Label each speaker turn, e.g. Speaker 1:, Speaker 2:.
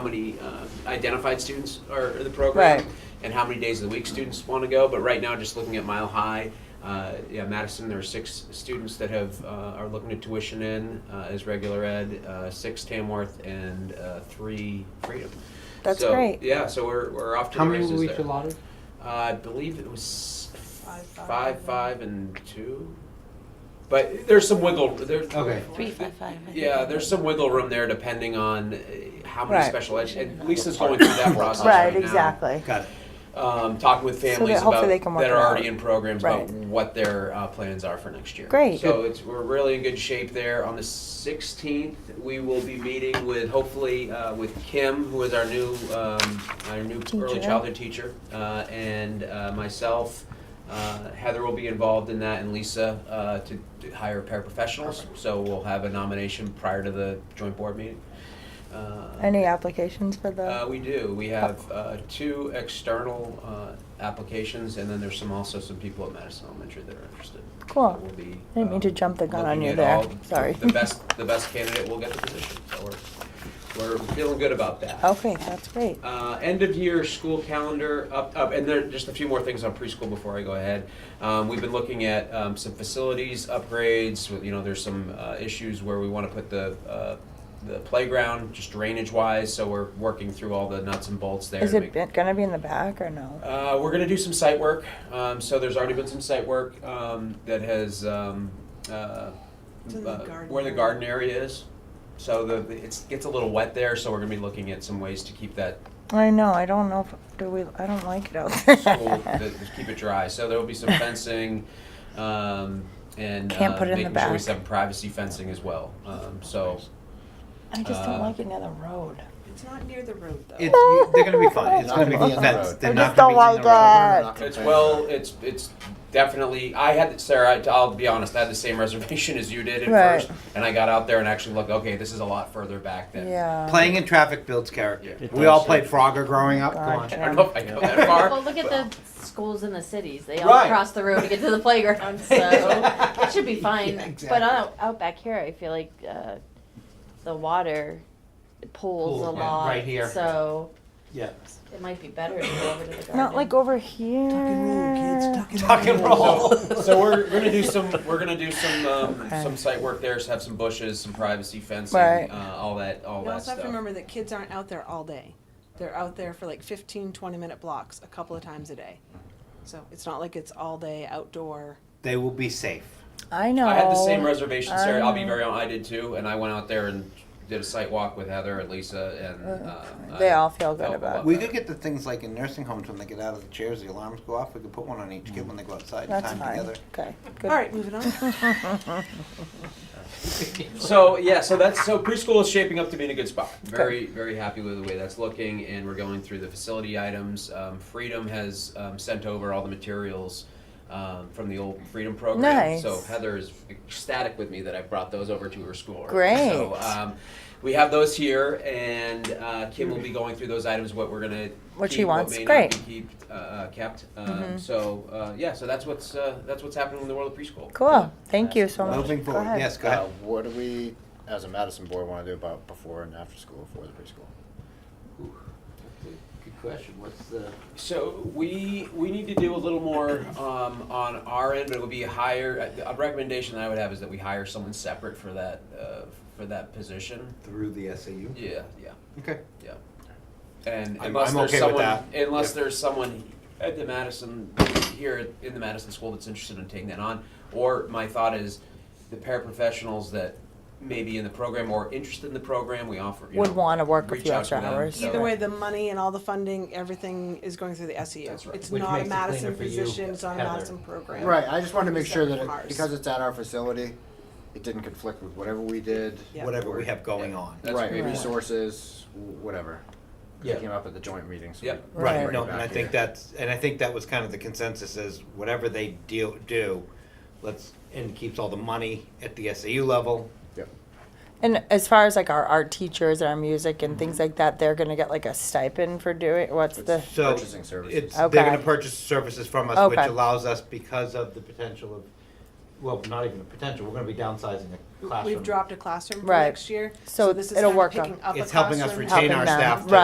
Speaker 1: how many uh, identified students are in the program
Speaker 2: Right.
Speaker 1: and how many days of the week students want to go. But right now, just looking at Mile High, uh, yeah, Madison, there are six students that have uh, are looking to tuition in uh, as regular ed, uh, six Tamworth, and uh, three Freedom.
Speaker 2: That's
Speaker 1: so,
Speaker 2: great.
Speaker 1: Yeah, so we're, we're off to
Speaker 3: How
Speaker 1: the
Speaker 3: many
Speaker 1: races
Speaker 3: were we
Speaker 1: there.
Speaker 3: allotted?
Speaker 1: Uh, I believe it was five,
Speaker 4: Five,
Speaker 1: five,
Speaker 4: five,
Speaker 1: and two. But there's some wiggle. There's
Speaker 3: Okay.
Speaker 2: Three, five, five. I think.
Speaker 1: Yeah, there's some wiggle room there depending on uh, how many
Speaker 2: Right.
Speaker 1: special ed. And Lisa's going through that process right,
Speaker 2: Right,
Speaker 1: now.
Speaker 2: exactly.
Speaker 3: Got it.
Speaker 1: Um, talking with
Speaker 2: that
Speaker 1: families
Speaker 2: hopefully
Speaker 1: about
Speaker 2: they can work
Speaker 1: that are
Speaker 2: it out.
Speaker 1: already in programs
Speaker 2: Right.
Speaker 1: about what their uh, plans are for next year.
Speaker 2: Great.
Speaker 1: So it's we're really in good shape there. On the 16th, we will be meeting with hopefully uh, with Kim, who is our new um, our new early
Speaker 2: Teacher.
Speaker 1: childhood teacher, uh, and uh, myself. Uh, Heather will be involved in that, and Lisa uh, to, to hire paraprofessionals. So we'll have a nomination prior to the joint board meeting. Uh,
Speaker 2: Any applications for the? Oh.
Speaker 1: uh, we do. We have uh, two external uh, applications, and then there's some, also some people at Madison Elementary that are interested.
Speaker 2: Cool.
Speaker 1: So we'll be,
Speaker 2: I didn't mean to
Speaker 1: um,
Speaker 2: jump the gun on
Speaker 1: looking
Speaker 2: you
Speaker 1: at
Speaker 2: there.
Speaker 1: all-
Speaker 2: Sorry.
Speaker 1: The best, the best candidate will get the position, so we're, we're feeling good about that.
Speaker 2: Okay, that's great.
Speaker 1: Uh, end of year school calendar up, up, and there are just a few more things on preschool before I go ahead. Um, we've been looking at um, some facilities upgrades. with- You know, there's some uh, issues where we want to put the uh, the playground just drainage wise. So we're working through all the nuts and bolts there.
Speaker 2: Is
Speaker 1: to
Speaker 2: it
Speaker 1: make-
Speaker 2: been- gonna be in the back or no?
Speaker 1: uh, we're going to do some site work. Um, so there's already been some site work um, that has um, uh,
Speaker 4: To the
Speaker 1: uh,
Speaker 4: garden
Speaker 1: where the
Speaker 4: area.
Speaker 1: garden area is. So the, the it gets a little wet there. So we're going to be looking at some ways to keep that
Speaker 2: I know, I don't know, if do we, I don't like it out
Speaker 1: school to,
Speaker 2: there.
Speaker 1: to keep it dry. So there will be some fencing, um, and
Speaker 2: Can't
Speaker 1: uh,
Speaker 2: put it in the
Speaker 1: making sure we
Speaker 2: back.
Speaker 1: have privacy fencing as well. Um, so
Speaker 2: I just
Speaker 1: uh,
Speaker 2: don't like it near the road.
Speaker 4: It's not near the road though.
Speaker 3: It's, you- they're gonna be fine. It's
Speaker 5: Not
Speaker 3: gonna
Speaker 5: gonna
Speaker 3: be
Speaker 5: be on the
Speaker 3: fenced.
Speaker 5: road.
Speaker 3: They're
Speaker 2: I
Speaker 3: not
Speaker 2: just
Speaker 3: gonna be
Speaker 2: don't
Speaker 3: on the
Speaker 2: like
Speaker 3: road.
Speaker 2: that.
Speaker 1: it's well, it's it's definitely. I had Sarah. I, I'll be honest. I had the same reservation as you did at
Speaker 2: Right.
Speaker 1: first, and I got out there and actually looked. Okay, this is a lot further back than.
Speaker 2: Yeah.
Speaker 3: Playing in traffic builds character.
Speaker 1: Yeah.
Speaker 6: It
Speaker 3: We all
Speaker 6: does.
Speaker 3: played Frogger growing up. Go on.
Speaker 1: I don't know if I go that far.
Speaker 7: Well, look at
Speaker 1: but-
Speaker 7: the schools in the cities. They all
Speaker 3: Right.
Speaker 7: cross the road to get to the playground, so it should be fine.
Speaker 3: Yeah, exactly.
Speaker 7: But uh, out, out back here, I feel like uh, the water pools
Speaker 3: Pool,
Speaker 7: a
Speaker 3: yeah,
Speaker 7: lot.
Speaker 3: right here.
Speaker 7: So
Speaker 3: Yeah.
Speaker 7: it might be better to go over to the garden.
Speaker 2: Not like over here.
Speaker 3: Tuck and roll.
Speaker 1: So, so we're, we're gonna do some we're gonna do some um,
Speaker 2: Okay.
Speaker 1: some site work there. So have some bushes, some privacy fencing,
Speaker 2: Right.
Speaker 1: uh, all that all
Speaker 4: You
Speaker 1: that
Speaker 4: also
Speaker 1: stuff.
Speaker 4: have to remember that kids aren't out there all day. They're out there for like 15, 20 minute blocks a couple of times a day. So it's not like it's all day outdoor.
Speaker 3: They will be safe.
Speaker 2: I know.
Speaker 1: I had the same reservation,
Speaker 2: I
Speaker 1: Sarah. I'll be
Speaker 2: know.
Speaker 1: very honest. I did too, and I went out there and did a site walk with Heather and Lisa, and uh,
Speaker 2: They
Speaker 1: I-
Speaker 2: all feel good
Speaker 1: Oh,
Speaker 2: about it.
Speaker 3: We could get the things like in nursing homes when they get out of the chairs, the alarms go off. We could put one on each kid when they go outside and
Speaker 2: That's
Speaker 3: time
Speaker 2: fine.
Speaker 3: together.
Speaker 2: Okay, good.
Speaker 4: All right, moving on.
Speaker 1: So yeah, so that's so preschool is shaping up to be in a good spot. Very very happy with the way that's looking, and we're going through the facility items. Um, Freedom has um, sent over all the materials. Um, from the old Freedom program,
Speaker 2: Nice.
Speaker 1: so Heather is ecstatic with me that I brought those over to her school.
Speaker 2: Great.
Speaker 1: So um, we have those here, and uh, Kim will be going through those items. What we're gonna
Speaker 2: What she
Speaker 1: keep,
Speaker 2: wants.
Speaker 1: what may
Speaker 2: Great. Mm-hmm.
Speaker 1: not be keep, uh, uh, kept. Um, So uh, yeah, so that's what's uh, that's what's happening in the world of preschool.
Speaker 2: Cool, thank you so much.
Speaker 3: Moving
Speaker 2: Go
Speaker 3: forward.
Speaker 2: ahead.
Speaker 3: Yes, go
Speaker 5: Uh,
Speaker 3: ahead.
Speaker 5: what do we, as a Madison board, want to do about before and after school for the preschool?
Speaker 8: Good question, what's the?
Speaker 1: So we, we need to do a little more um, on our end, but it would be a higher, uh, a recommendation that I would have is that we hire someone separate for that, uh, for that position.
Speaker 3: Through the SAU.
Speaker 1: Yeah, yeah,
Speaker 3: Okay.
Speaker 1: yeah. And
Speaker 3: I'm-
Speaker 1: unless
Speaker 3: I'm
Speaker 1: there's
Speaker 3: okay with
Speaker 1: someone,
Speaker 3: that.
Speaker 1: unless
Speaker 3: Yep.
Speaker 1: there's someone at the Madison, here in the Madison school that's interested in taking that on. Or my thought is the paraprofessionals that may be in the program or interested in the program, we offer, you
Speaker 2: Would
Speaker 1: know,
Speaker 2: wanna work a
Speaker 1: reach
Speaker 2: few
Speaker 1: out
Speaker 2: extra
Speaker 1: to them,
Speaker 2: hours.
Speaker 1: so-
Speaker 4: Either way, the money and all the funding, everything is going through the SEU.
Speaker 1: That's right.
Speaker 4: It's
Speaker 3: Which
Speaker 4: not a
Speaker 3: makes it
Speaker 4: Madison
Speaker 3: cleaner for you,
Speaker 4: position, it's not a
Speaker 3: Heather.
Speaker 4: Madison program.
Speaker 5: Right, I just wanted to make sure that,
Speaker 4: Ours.
Speaker 5: it- because it's at our facility, it didn't conflict with whatever we did.
Speaker 4: Yeah.
Speaker 3: Whatever we have going
Speaker 1: Yeah.
Speaker 3: on.
Speaker 1: That's
Speaker 5: Right,
Speaker 1: great.
Speaker 5: resources, wh- whatever.
Speaker 1: Yeah.
Speaker 5: It came up at the joint meeting, so. we
Speaker 1: Yeah.
Speaker 5: can
Speaker 3: Right,
Speaker 5: bring it
Speaker 3: no,
Speaker 5: back
Speaker 3: and I
Speaker 5: here.
Speaker 3: think that's, and I think that was kind of the consensus is whatever they deal, do, let's, and keeps all the money at the SAU level.
Speaker 5: Yep.
Speaker 2: And as far as like our art teachers and our music and things like that, they're gonna get like a stipend for doing, what's the,
Speaker 5: It's
Speaker 3: So
Speaker 5: Purchasing services.
Speaker 3: it's, they're gonna
Speaker 2: Okay.
Speaker 3: purchase services from us, which
Speaker 2: Okay.
Speaker 3: allows us because of the potential of well, not even a potential, we're gonna be downsizing the classroom.
Speaker 4: We've dropped a classroom for
Speaker 2: Right.
Speaker 4: next year.
Speaker 2: So
Speaker 4: this is
Speaker 2: it'll
Speaker 4: kind of
Speaker 2: work on-
Speaker 4: picking up a
Speaker 3: It's helping us
Speaker 4: classroom,
Speaker 3: retain
Speaker 2: Helping
Speaker 3: our
Speaker 2: them,
Speaker 3: staff to
Speaker 2: right.